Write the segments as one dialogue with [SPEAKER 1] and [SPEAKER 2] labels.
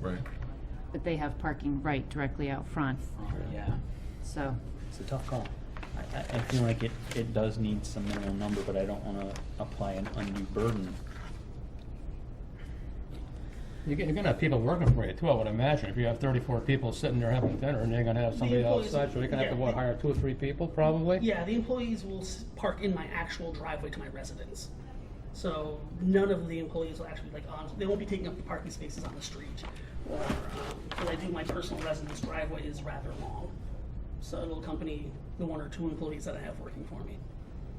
[SPEAKER 1] Right.
[SPEAKER 2] but they have parking right directly out front,
[SPEAKER 3] Yeah,
[SPEAKER 2] so.
[SPEAKER 3] it's a tough call. I, I, I feel like it, it does need some minimum number, but I don't wanna apply an undue burden.
[SPEAKER 4] You're gonna you're gonna have people working for you too, I would imagine. If you have thirty-four people sitting there having dinner and you're gonna have somebody
[SPEAKER 5] employees-
[SPEAKER 4] outside, so you're gonna have to,
[SPEAKER 5] yeah.
[SPEAKER 4] what, hire two or three people probably?
[SPEAKER 5] Yeah, the employees will s- park in my actual driveway to my residence. So none of the employees will actually like on. They won't be taking up the parking spaces on the street. Or um, because I think my personal residence driveway is rather long, so it'll accompany the one or two employees that I have working for me.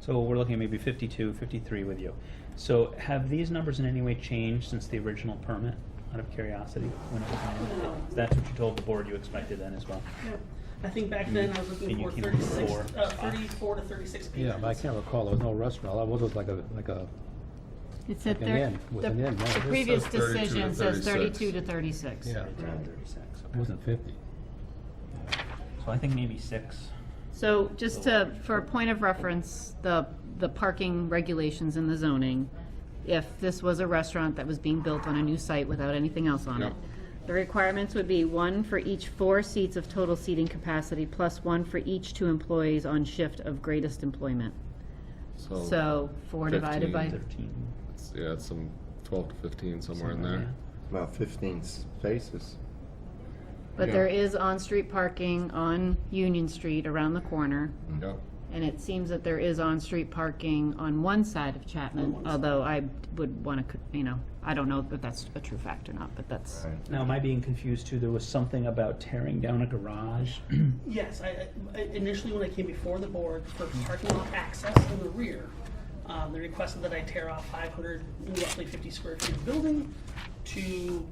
[SPEAKER 3] So we're looking at maybe 52, 53 with you. So have these numbers in any way changed since the original permit, out of curiosity? when it was made? If That's what you told the board you expected then as well.
[SPEAKER 5] I think back then I was
[SPEAKER 3] And
[SPEAKER 5] looking
[SPEAKER 3] you
[SPEAKER 5] for
[SPEAKER 3] came up with
[SPEAKER 5] 36,
[SPEAKER 3] four
[SPEAKER 5] uh,
[SPEAKER 3] spots.
[SPEAKER 5] 34 to 36 patrons.
[SPEAKER 6] Yeah, but I can't recall, there was no restaurant, I was just like a, like a,
[SPEAKER 2] It said
[SPEAKER 6] Like an
[SPEAKER 2] thir-
[SPEAKER 6] inn, with
[SPEAKER 2] the-
[SPEAKER 6] an inn, right?
[SPEAKER 2] The
[SPEAKER 6] It
[SPEAKER 2] previous
[SPEAKER 1] says 32 to
[SPEAKER 2] decision says
[SPEAKER 1] 36.
[SPEAKER 2] thirty-two to thirty-six.
[SPEAKER 6] yeah, it wasn't fifty.
[SPEAKER 3] So I think maybe six.
[SPEAKER 2] So just to, for a point of reference, the, the parking regulations in the zoning, if this was a restaurant that was being built on a new site without anything else on it, the requirements would be one for each four seats of total seating capacity, plus one for each two employees on shift of greatest employment.
[SPEAKER 1] Oh,
[SPEAKER 2] So four divided by,
[SPEAKER 1] 15.
[SPEAKER 3] 13.
[SPEAKER 1] it's- Yeah, it's some twelve to fifteen somewhere in
[SPEAKER 3] Somewhere,
[SPEAKER 1] there.
[SPEAKER 7] About 15 spaces.
[SPEAKER 2] but there is on-street parking on Union Street around the corner.
[SPEAKER 1] Yep.
[SPEAKER 2] And it seems that there is on-street parking on one side of Chapman, although I would want to, you know, I don't know if that's a true fact or not, but that's,
[SPEAKER 3] Now, am I being confused too? There was something about tearing down a garage. Uh,
[SPEAKER 5] Yes, I, I- initially when I came before the board for parking lot access in the rear, um, they requested that I tear off five hundred, roughly fifty square feet of building to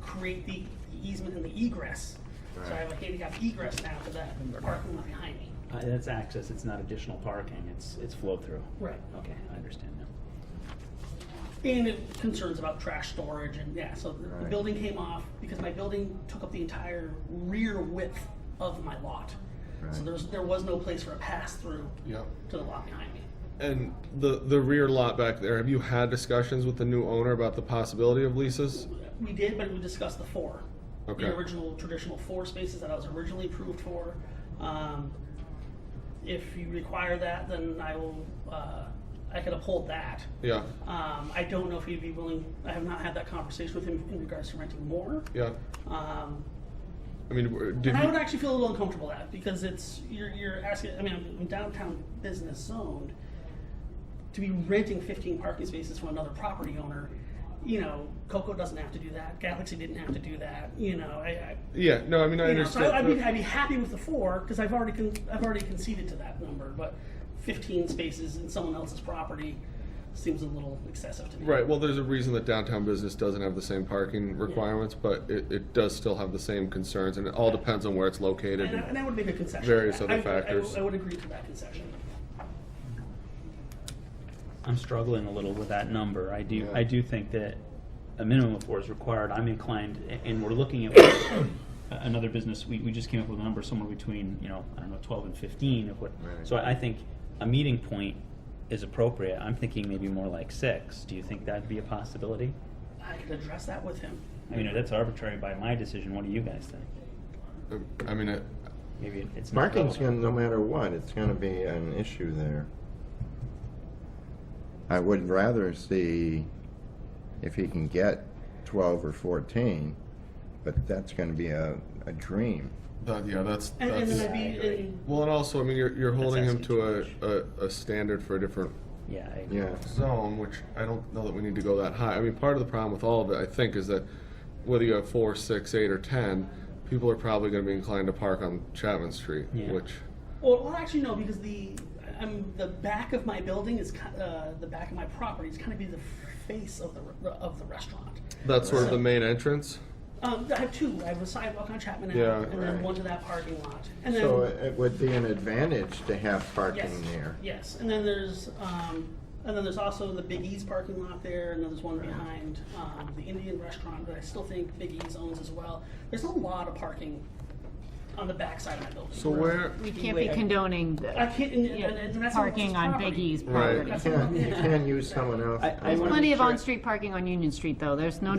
[SPEAKER 5] create the easement and the egress. So I have a handicap egress now for that parking lot behind me.
[SPEAKER 3] Uh, That's access, it's not additional parking, it's, it's flow-through.
[SPEAKER 5] Right.
[SPEAKER 3] Okay, I understand now.
[SPEAKER 5] And it concerns about trash storage and, yeah, so the- the
[SPEAKER 7] Right.
[SPEAKER 5] building came off because my building took up the entire rear width of my lot. So
[SPEAKER 7] Right.
[SPEAKER 5] there's, there was no place for a pass-through
[SPEAKER 1] Yep.
[SPEAKER 5] to the lot behind me.
[SPEAKER 1] And the the rear lot back there. Have you had discussions with the new owner about the possibility of leases?
[SPEAKER 5] We did, but we discussed the four.
[SPEAKER 1] Okay.
[SPEAKER 5] The original, traditional four spaces that I was originally approved for. Um, if you require that, then I will, uh, I could uphold that.
[SPEAKER 1] Yeah.
[SPEAKER 5] Um, I don't know if he'd be willing, I have not had that conversation with him in regards to renting more.
[SPEAKER 1] Yeah.
[SPEAKER 5] Um,
[SPEAKER 1] I mean, w- did
[SPEAKER 5] and I
[SPEAKER 1] you?
[SPEAKER 5] would actually feel a little uncomfortable with that because it's, you're, you're asking, I mean, I'm downtown business zoned. To be renting fifteen parking spaces from another property owner, you know, Coco doesn't have to do that, Galaxy didn't have to do that, you know, I, I,
[SPEAKER 1] yeah. No, I mean, I
[SPEAKER 5] you know, so
[SPEAKER 1] understand.
[SPEAKER 5] I- I'd be, I'd be happy with the four, because I've already, con- I've already conceded to that number, but fifteen spaces in someone else's property seems a little excessive to me.
[SPEAKER 1] Right. Well, there's a reason that downtown business doesn't have the same parking requirements, but it, it does still have the same concerns, and it all depends on where it's located.
[SPEAKER 5] And I, and I would make a concession.
[SPEAKER 1] Various
[SPEAKER 5] I-
[SPEAKER 1] other
[SPEAKER 5] I would- I would-
[SPEAKER 1] factors.
[SPEAKER 5] I would agree to that concession.
[SPEAKER 3] I'm struggling a little with that number. I do,
[SPEAKER 1] Yeah.
[SPEAKER 3] I do think that a minimum of four is required. I'm inclined, a- and we're looking at another business, we, we just came up with a number somewhere between, you know, I don't know, twelve and fifteen of what.
[SPEAKER 7] Right.
[SPEAKER 3] So I I think a meeting point is appropriate. I'm thinking maybe more like six. Do you think that'd be a possibility?
[SPEAKER 5] I could address that with him.
[SPEAKER 3] I mean, that's arbitrary by my decision. What do you guys think?
[SPEAKER 1] I mean, it,
[SPEAKER 3] Maybe it- it's not
[SPEAKER 7] Parking's
[SPEAKER 3] relevant.
[SPEAKER 7] gonna, no matter what, it's gonna be an issue there. I would rather see if he can get 12 or 14, but that's gonna be a, a dream.
[SPEAKER 1] that, yeah, that's
[SPEAKER 5] And, and
[SPEAKER 1] that's.
[SPEAKER 5] then I'd be, and
[SPEAKER 1] Well, and also, I mean, you're, you're holding him
[SPEAKER 3] asking
[SPEAKER 1] to
[SPEAKER 3] too
[SPEAKER 1] a, a, a standard for a different
[SPEAKER 3] Yeah, I agree.
[SPEAKER 7] Yeah.
[SPEAKER 1] zone, which I don't know that we need to go that high. I mean, part of the problem with all of it, I think, is that whether you have four, six, eight, or ten, people are probably going to be inclined to park on Chapman Street,
[SPEAKER 3] Yeah.
[SPEAKER 1] which
[SPEAKER 5] Well, well, actually, no, because the I'm the back of my building is ki- uh, the back of my property is kind of be the face of the re- of the restaurant.
[SPEAKER 1] that's sort of the main entrance.
[SPEAKER 5] Um, I have two. I have a sidewalk on Chapman Ave,
[SPEAKER 1] Yeah,
[SPEAKER 5] and then
[SPEAKER 7] right.
[SPEAKER 5] one to that parking lot. And then
[SPEAKER 7] So it it would be an advantage to have
[SPEAKER 5] yes,
[SPEAKER 7] parking there.
[SPEAKER 5] yes, and then there's um, and then there's also the Big E's parking lot there, and then there's one behind um, the Indian restaurant that I still think Big E's owns as well. There's a lot of parking on the back side of my building.
[SPEAKER 1] So where?
[SPEAKER 2] we can't be condoning the-
[SPEAKER 5] I can't, and, and,
[SPEAKER 2] Yeah,
[SPEAKER 5] and that's someone else's
[SPEAKER 2] parking on Big
[SPEAKER 5] property.
[SPEAKER 2] E's
[SPEAKER 1] Right.
[SPEAKER 2] property.
[SPEAKER 7] You can't, you can't use someone else.
[SPEAKER 3] I- I wanna
[SPEAKER 2] Plenty of on-street parking on Union Street, though, there's no